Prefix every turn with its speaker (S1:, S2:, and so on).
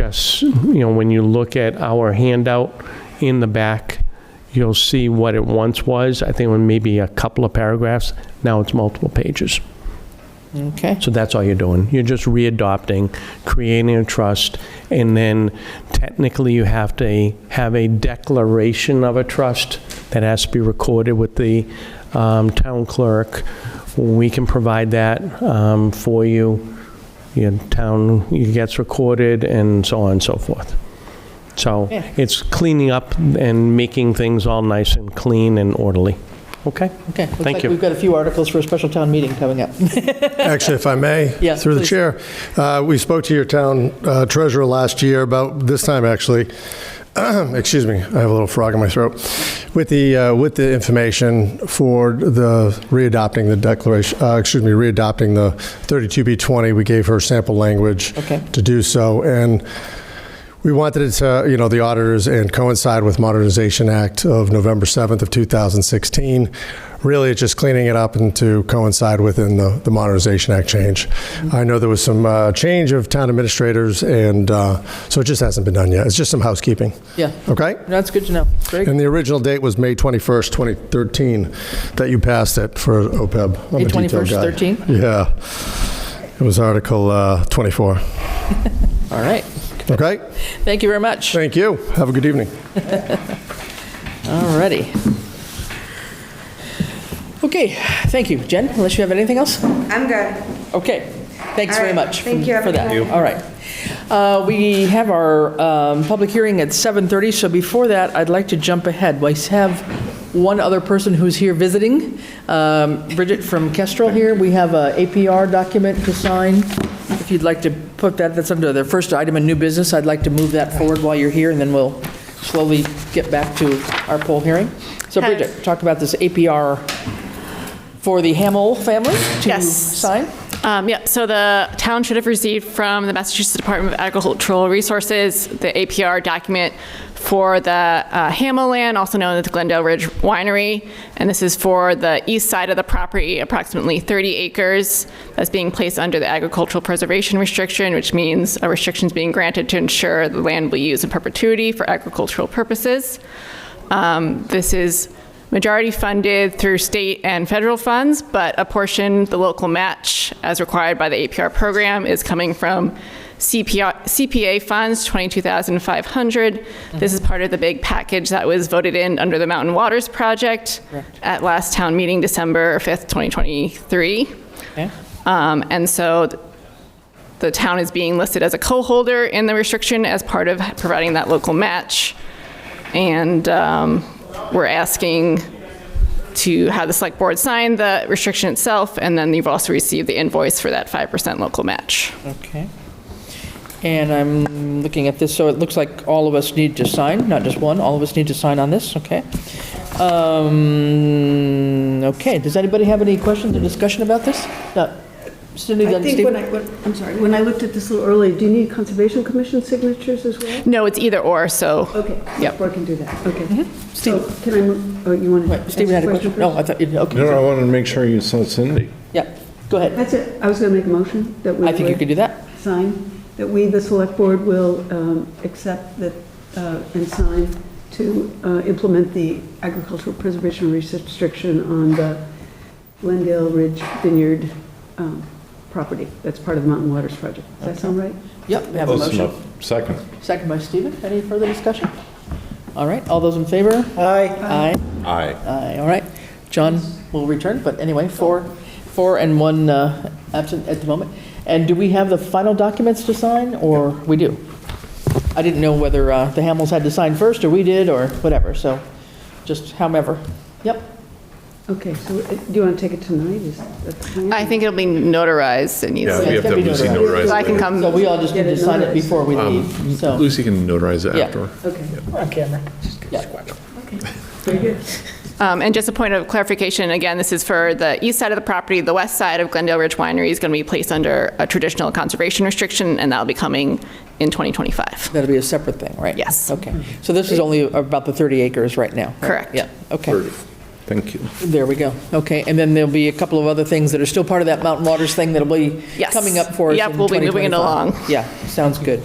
S1: just, you know, when you look at our handout in the back, you'll see what it once was. I think it was maybe a couple of paragraphs. Now it's multiple pages.
S2: Okay,
S1: So that's all you're doing. You're just readopting, creating a trust, and then technically you have to have a declaration of a trust that has to be recorded with the um, town clerk. We can provide that um, for you. Your town it gets recorded and so on and so forth. So
S2: Yeah.
S1: it's cleaning up and making things all nice and clean and orderly. Okay?
S2: okay.
S1: Thank you.
S2: Looks like we've got a few articles for a special town meeting coming up.
S3: Actually, if I may,
S2: Yeah,
S3: through the
S2: please.
S3: chair, uh, we spoke to your town uh, treasurer last year about this time, actually. uh, Excuse me, I have a little frog in my throat. With the, uh, with the information for the readopting the declaration, uh, excuse me, readopting the 32B20, we gave her sample language
S2: Okay.
S3: to do so. And we wanted it to, you know, the auditors and coincide with Modernization Act of November 7th of 2016. Really, it's just cleaning it up and to coincide within the, the Modernization Act change. I know there was some uh, change of town administrators, and uh, so it just hasn't been done yet. It's just some housekeeping,
S2: Yeah,
S3: okay?
S2: that's good to know. Very
S3: And the original date was May 21st, 2013, that you passed it for OPEB. I'm a
S2: May
S3: detail
S2: 21st,
S3: guy.
S2: 13?
S3: Yeah. It was Article uh, 24,
S2: All right.
S3: okay?
S2: Thank you very much.
S3: Thank you. Have a good evening.
S2: All righty. Okay, thank you. Jen, unless you have anything else?
S4: I'm good.
S2: Okay, thanks very
S4: All right,
S2: much. for-
S4: thank you,
S2: For that,
S4: everyone.
S2: all right. Uh, We have our um, public hearing at 7:30, so before that, I'd like to jump ahead. We have one other person who's here visiting, Um, Bridget from Kestrel here. We have a APR document to sign. If you'd like to put that, that's under the first item in new business, I'd like to move that forward while you're here, and then we'll slowly get back to our poll hearing. So
S5: Hi.
S2: Bridget, talk about this APR for the Hamel family to
S5: Yes.
S2: sign.
S5: Um, Yeah, so the town should have received from the Massachusetts Department of Agricultural Resources the APR document for the uh, Hamel land, also known as the Glendale Ridge Winery. And this is for the east side of the property, approximately 30 acres, that's being placed under the agricultural preservation restriction, which means a restriction is being granted to ensure the land will be used in perpetuity for agricultural purposes. Um, This is majority funded through state and federal funds, but a portion, the local match, as required by the APR program, is coming from CPR CPA funds, 22,500. This is part of the big package that was voted in under the Mountain Waters Project at last town meeting, December 5th, 2023.
S2: Okay.
S5: Um, And so th- the town is being listed as a co-holder in the restriction as part of providing that local match. And um, we're asking to have the select board sign the restriction itself, and then you've also received the invoice for that 5% local match.
S2: Okay. And I'm looking at this, so it looks like all of us need to sign, not just one, all of us need to sign on this, okay? Um, Okay, does anybody have any questions or discussion about this? No. Cindy,
S6: I
S2: then
S6: think when
S2: Steve?
S6: I, when- I'm sorry, when I looked at this a little earlier, do you need Conservation Commission signatures as well?
S5: No, it's either or, so,
S6: Okay,
S5: Yep.
S6: I can do that, okay. So can I, move- oh, you want to?
S2: Mm-hmm. Wait, Steven had a question? No, I thought, you okay,
S7: No, I wanted to make sure you saw Cindy.
S2: yeah, go ahead.
S6: That's it, I was going to make a motion that we
S2: I think you could
S6: would
S2: do that.
S6: sign, that we, the Select Board, will um, accept that uh, and sign to uh, implement the agricultural preservation restriction on the Glendale Ridge Vineyard um, property. That's part of the Mountain Waters Project. Does that sound right?
S2: Yep, we have a
S7: Close
S2: motion.
S7: enough. Second.
S2: Second by Steven, any further discussion? All right, all those in favor? Aye. Aye.
S7: Aye.
S2: Aye, all right. John will return, but anyway, four, four and one uh, absent at the moment. And do we have the final documents to sign, or we do? I didn't know whether uh, the Hamels had to sign first, or we did, or whatever, so just however. Yep,
S6: Okay, so uh, do you want to take it tonight? Is that the plan?
S5: I think it'll be notarized and needs
S8: Yeah,
S2: Yeah,
S8: we
S2: it's
S8: have to
S2: gotta
S8: have
S2: be
S8: Lucy
S2: notarized.
S8: notarize
S5: So I can
S8: it.
S5: come,
S2: so we all just need
S6: Get
S2: to
S6: it
S2: sign it
S6: notarized.
S2: before we leave,
S8: later.
S2: so.
S8: Lucy can notarize it
S2: Oh. Yeah.
S8: after.
S6: Okay.
S2: On camera.
S6: Very good.
S5: um, and just a point of clarification, again, this is for the east side of the property, the west side of Glendale Ridge Winery is going to be placed under a traditional conservation restriction, and that'll be coming in 2025.
S2: That'll be a separate thing, right?
S5: Yes.
S2: Okay, so this is only about the 30 acres right now? right?
S5: Correct.
S2: Yeah, okay.
S7: Thank you.
S2: There we go. Okay, and then there'll be a couple of other things that are still part of that Mountain Waters thing that'll be
S5: Yes.
S2: coming up for us
S5: Yep,
S2: in
S5: we'll be moving it
S2: 2025.
S5: along.
S2: Yeah, sounds good.